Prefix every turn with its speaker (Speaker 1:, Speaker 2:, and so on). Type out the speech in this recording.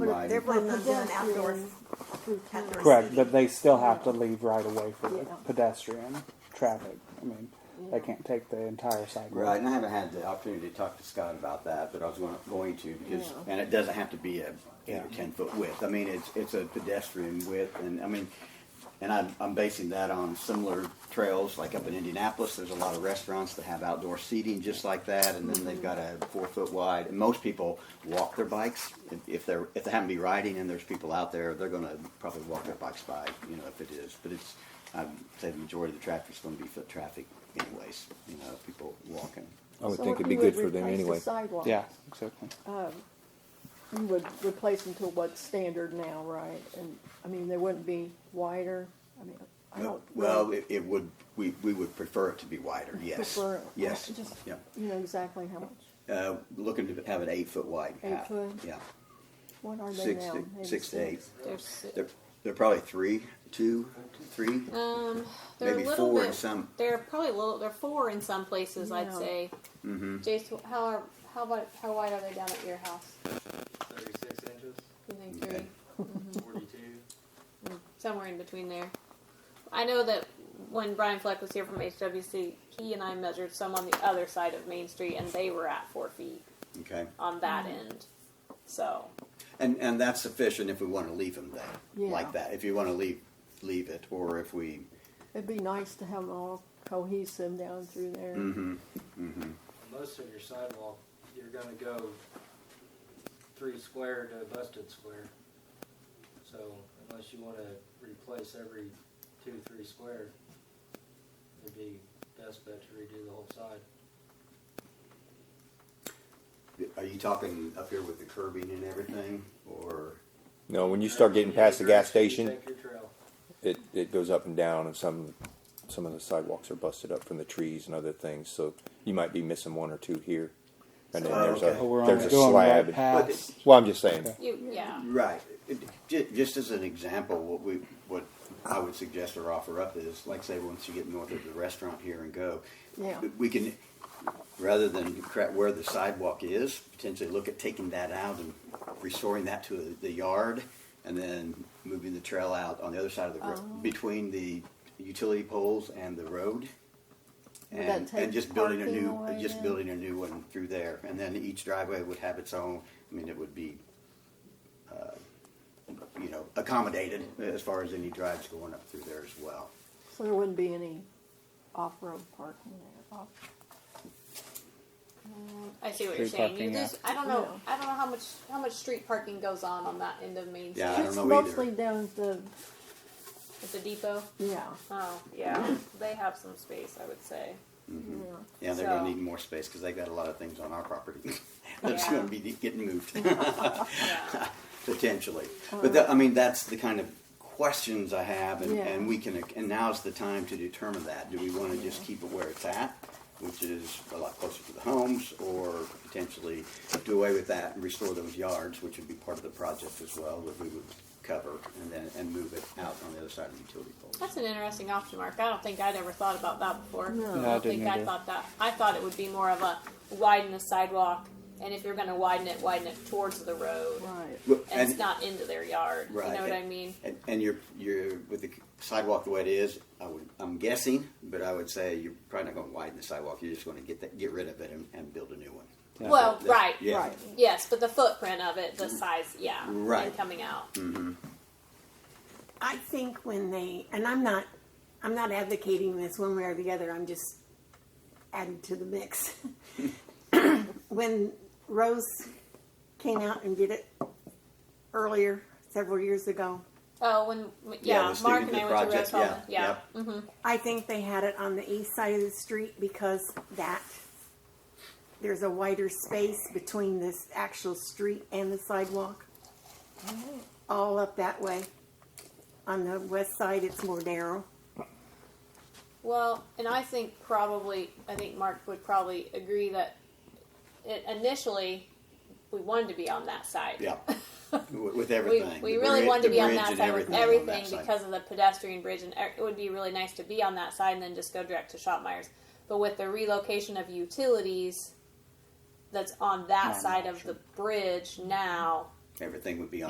Speaker 1: They're
Speaker 2: away.
Speaker 1: planning on doing outdoors.
Speaker 3: through town.
Speaker 1: outdoors.
Speaker 4: Correct, but they still have to leave right away for the
Speaker 3: Yeah.
Speaker 4: pedestrian traffic. I mean, they can't take the entire sidewalk.
Speaker 2: Right, and I haven't had the opportunity to talk to Scott about that, but I was going, going to because,
Speaker 3: Yeah.
Speaker 2: and it doesn't have to be a eight
Speaker 4: Yeah.
Speaker 2: or ten foot width. I mean, it's it's a pedestrian width, and I mean, and I'm, I'm basing that on similar trails like up in Indianapolis. There's a lot of restaurants that have outdoor seating just like that, and then
Speaker 3: Mm-hmm.
Speaker 2: they've got a four foot wide. And most people walk their bikes if, if they're if they happen to be riding and there's people out there, they're going to probably walk their bikes by, you know, if it is. But it's I'd say the majority of the traffic's going to be foot traffic anyways. You know, people walking.
Speaker 5: I would
Speaker 3: So
Speaker 5: think
Speaker 3: if
Speaker 5: it'd be
Speaker 3: you
Speaker 5: good
Speaker 3: would
Speaker 5: for them
Speaker 3: replace the
Speaker 5: anyway.
Speaker 3: sidewalks,
Speaker 4: Yeah, exactly.
Speaker 3: You would replace them to what's standard now, right? And, I mean, they wouldn't be wider, I mean, I
Speaker 2: Well,
Speaker 3: don't.
Speaker 2: well,
Speaker 3: really
Speaker 2: it, it would, we, we would prefer it to be wider, yes.
Speaker 3: prefer-
Speaker 2: Yes,
Speaker 3: Just,
Speaker 2: yeah.
Speaker 3: you know exactly how much,
Speaker 2: Uh, looking to have an eight foot wide
Speaker 3: Eight
Speaker 2: path.
Speaker 3: foot?
Speaker 2: Yeah.
Speaker 3: what are they
Speaker 2: Six
Speaker 3: now?
Speaker 2: to,
Speaker 3: Maybe
Speaker 2: six to eight.
Speaker 6: There's si-
Speaker 2: They're, they're probably three, two, three,
Speaker 6: um, they're
Speaker 2: maybe
Speaker 6: a little
Speaker 2: four
Speaker 6: bit,
Speaker 2: in some.
Speaker 6: They're probably little. They're four in some places. I'd
Speaker 3: Yeah.
Speaker 6: say. Mm-hmm. Jace, how are how about how wide are they down at your house?
Speaker 7: 36 inches,
Speaker 6: You think three?
Speaker 2: Okay.
Speaker 7: 42.
Speaker 6: somewhere in between there. I know that when Brian Fleck was here from HWC, he and I measured some on the other side of Main Street, and they were at four feet
Speaker 2: Okay.
Speaker 6: on that end. So
Speaker 2: And, and that's sufficient if we want to leave them there,
Speaker 3: Yeah.
Speaker 2: like that. If you want to leave, leave it, or if we,
Speaker 3: It'd be nice to have them all cohesive down through there.
Speaker 2: Mm. mm-hmm.
Speaker 7: Most of your sidewalk, you're gonna go three square to a busted square. So unless you wanna replace every two, three square, it'd be best bet to redo the whole side.
Speaker 2: are you talking up here with the curbing and everything, or?
Speaker 5: No, when you start getting past the gas
Speaker 7: You
Speaker 5: station,
Speaker 7: take your trail.
Speaker 5: it, it goes up and down, and some some of the sidewalks are busted up from the trees and other things. So you might be missing one or two here, and then
Speaker 2: Oh,
Speaker 5: there's
Speaker 2: okay.
Speaker 4: But we're
Speaker 5: a
Speaker 4: only
Speaker 5: there's a
Speaker 4: doing
Speaker 5: slab.
Speaker 4: right
Speaker 5: and-
Speaker 4: past.
Speaker 5: Well, I'm just saying.
Speaker 6: you, yeah,
Speaker 2: Right. It- ju- Just as an example, what we, what I would suggest or offer up is, like say, once you get north of the restaurant here and go,
Speaker 3: Yeah.
Speaker 2: we can, rather than cra- where the sidewalk is, potentially look at taking that out and restoring that to the yard and then moving the trail out on the other side of the, ro-
Speaker 3: Oh.
Speaker 2: between the utility poles and the road.
Speaker 3: Would
Speaker 2: And,
Speaker 3: that
Speaker 2: and
Speaker 3: take
Speaker 2: just building a
Speaker 3: parking
Speaker 2: new,
Speaker 3: away
Speaker 2: just
Speaker 3: then?
Speaker 2: building a new one through there. And then each driveway would have its own, I mean, it would be uh, you know, accommodated as far as any drives going up through there as well.
Speaker 3: So there wouldn't be any off-road parking there. Off-
Speaker 6: I see what you're
Speaker 4: Street
Speaker 6: saying.
Speaker 4: parking,
Speaker 6: You
Speaker 4: yeah.
Speaker 6: just, I don't know, I don't know how much how much street parking goes on on that end of Main Street
Speaker 2: Yeah, I don't
Speaker 3: It's
Speaker 2: know either.
Speaker 3: mostly down at the,
Speaker 6: at the depot.
Speaker 3: yeah,
Speaker 6: Oh yeah, they have some space, I would say.
Speaker 3: yeah.
Speaker 2: Yeah, they're
Speaker 6: So-
Speaker 2: gonna need more space because they've got a lot of things on our property that's
Speaker 6: Yeah.
Speaker 2: gonna be getting moved
Speaker 6: Yeah.
Speaker 2: potentially. But that, I mean, that's the kind of questions I have, and,
Speaker 3: Yeah.
Speaker 2: and we can, and now's the time to determine that. Do we want to just keep it where it's at, which is a lot closer to the homes, or potentially do away with that and restore those yards, which would be part of the project as well that we would cover, and then and move it out on the other side of the utility poles.
Speaker 6: That's an interesting option, Mark. I don't think I'd ever thought about that before.
Speaker 3: No.
Speaker 6: I
Speaker 3: No,
Speaker 4: I
Speaker 6: don't think
Speaker 4: didn't
Speaker 6: I
Speaker 4: either.
Speaker 6: thought that. I thought it would be more of a widen the sidewalk, and if you're going to widen it, widen it towards the road,
Speaker 3: Right.
Speaker 2: Well,
Speaker 6: and, it's not into their yard.
Speaker 2: Right.
Speaker 6: You know what I mean?
Speaker 2: And, and you're you're with the sidewalk the way it is. I would I'm guessing, but I would say you're probably not going to widen the sidewalk. You're just going to get that get rid of it and, and build a new one. That's
Speaker 6: Well,
Speaker 2: what- that's-
Speaker 6: right.
Speaker 2: Yeah.
Speaker 3: Right.
Speaker 6: Yes, but the footprint of it, the size, yeah,
Speaker 2: Right. Mm.
Speaker 6: and coming out.
Speaker 1: I think when they, and I'm not, I'm not advocating this one way or the other. I'm just adding to the mix. when Rose came out and did it earlier, several years ago,
Speaker 6: Oh, when yeah,
Speaker 2: the student
Speaker 6: Mark and I
Speaker 2: did
Speaker 6: went to
Speaker 2: project,
Speaker 6: Rose Hall.
Speaker 2: yeah,
Speaker 6: yeah.
Speaker 2: yep.
Speaker 6: Mhm.
Speaker 1: I think they had it on the east side of the street because that there's a wider space between this actual street and the sidewalk. All up that way. On the west side, it's more narrow.
Speaker 6: Well, and I think probably, I think Mark would probably agree that it, initially we wanted to be on that side.
Speaker 2: Yeah.
Speaker 6: Mm-hmm.
Speaker 2: with, with
Speaker 6: We,
Speaker 2: everything.
Speaker 6: we
Speaker 2: The
Speaker 6: really
Speaker 2: bri-
Speaker 6: wanted to
Speaker 2: the
Speaker 6: be on
Speaker 2: bridge
Speaker 6: that
Speaker 2: and
Speaker 6: side
Speaker 2: everything, on
Speaker 6: with
Speaker 2: that
Speaker 6: everything
Speaker 2: side.
Speaker 6: because of the pedestrian bridge, and e- it would be really nice to be on that side and then just go direct to Shopmeyer's. But with the relocation of utilities that's on that
Speaker 4: Not an
Speaker 6: side of
Speaker 4: option.
Speaker 6: the bridge now,
Speaker 2: everything would be on